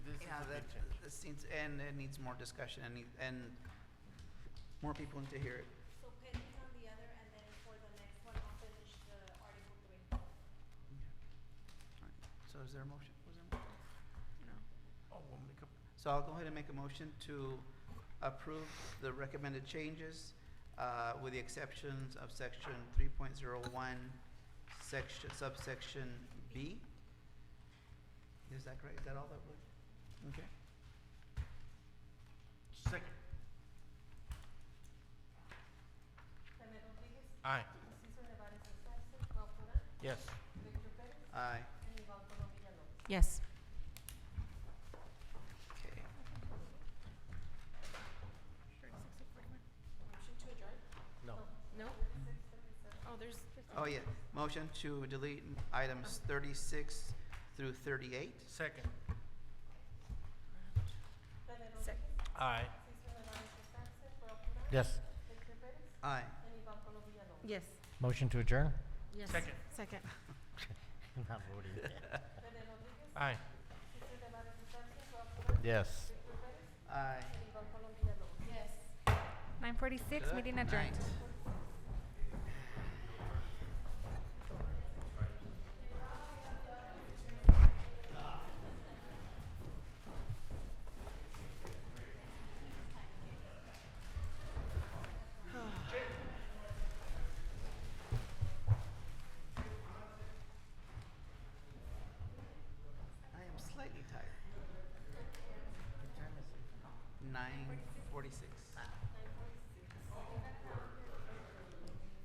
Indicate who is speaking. Speaker 1: this seems, and it needs more discussion and, need- and more people need to hear it.
Speaker 2: So pending on the other, and then for the next one, I'll finish the Article Three.
Speaker 1: All right. So is there a motion? Was there a motion? No. Oh, we'll make a- So I'll go ahead and make a motion to approve the recommended changes uh, with the exceptions of section three point zero one, section, subsection B. Is that correct? Is that all that would? Okay.
Speaker 3: Second.
Speaker 2: Jaime Rodriguez,
Speaker 3: Aye.
Speaker 2: Cesar Nevares is absent, Raul Porter,
Speaker 3: Yes.
Speaker 2: Victor Perez,
Speaker 1: Aye.
Speaker 2: and Iván Colom Villalobos.
Speaker 4: Yes.
Speaker 1: Okay.
Speaker 2: Motion to adjourn?
Speaker 3: No.
Speaker 4: No? Oh, there's.
Speaker 1: Oh, yeah. Motion to delete items thirty-six through thirty-eight.
Speaker 3: Second.
Speaker 2: Jaime
Speaker 4: Sec-
Speaker 3: Aye.
Speaker 2: Rodriguez, Cesar Nevares is absent, Raul Porter,
Speaker 3: Yes.
Speaker 2: Victor Perez,
Speaker 1: Aye.
Speaker 2: and Iván Colom Villalobos.
Speaker 4: Yes.
Speaker 5: Motion to adjourn?
Speaker 4: Yes.
Speaker 3: Second.
Speaker 4: Second.
Speaker 5: Not voting.
Speaker 2: Jaime Rodriguez,
Speaker 3: Aye.
Speaker 2: Cesar Nevares is absent, Raul Porter,
Speaker 5: Yes.
Speaker 2: Victor Perez,
Speaker 1: Aye.
Speaker 2: and Iván Colom Villalobos. Yes.
Speaker 4: Nine forty-six,
Speaker 1: Good
Speaker 4: meeting adjourned.
Speaker 1: night. I am slightly tired. Nine forty-six.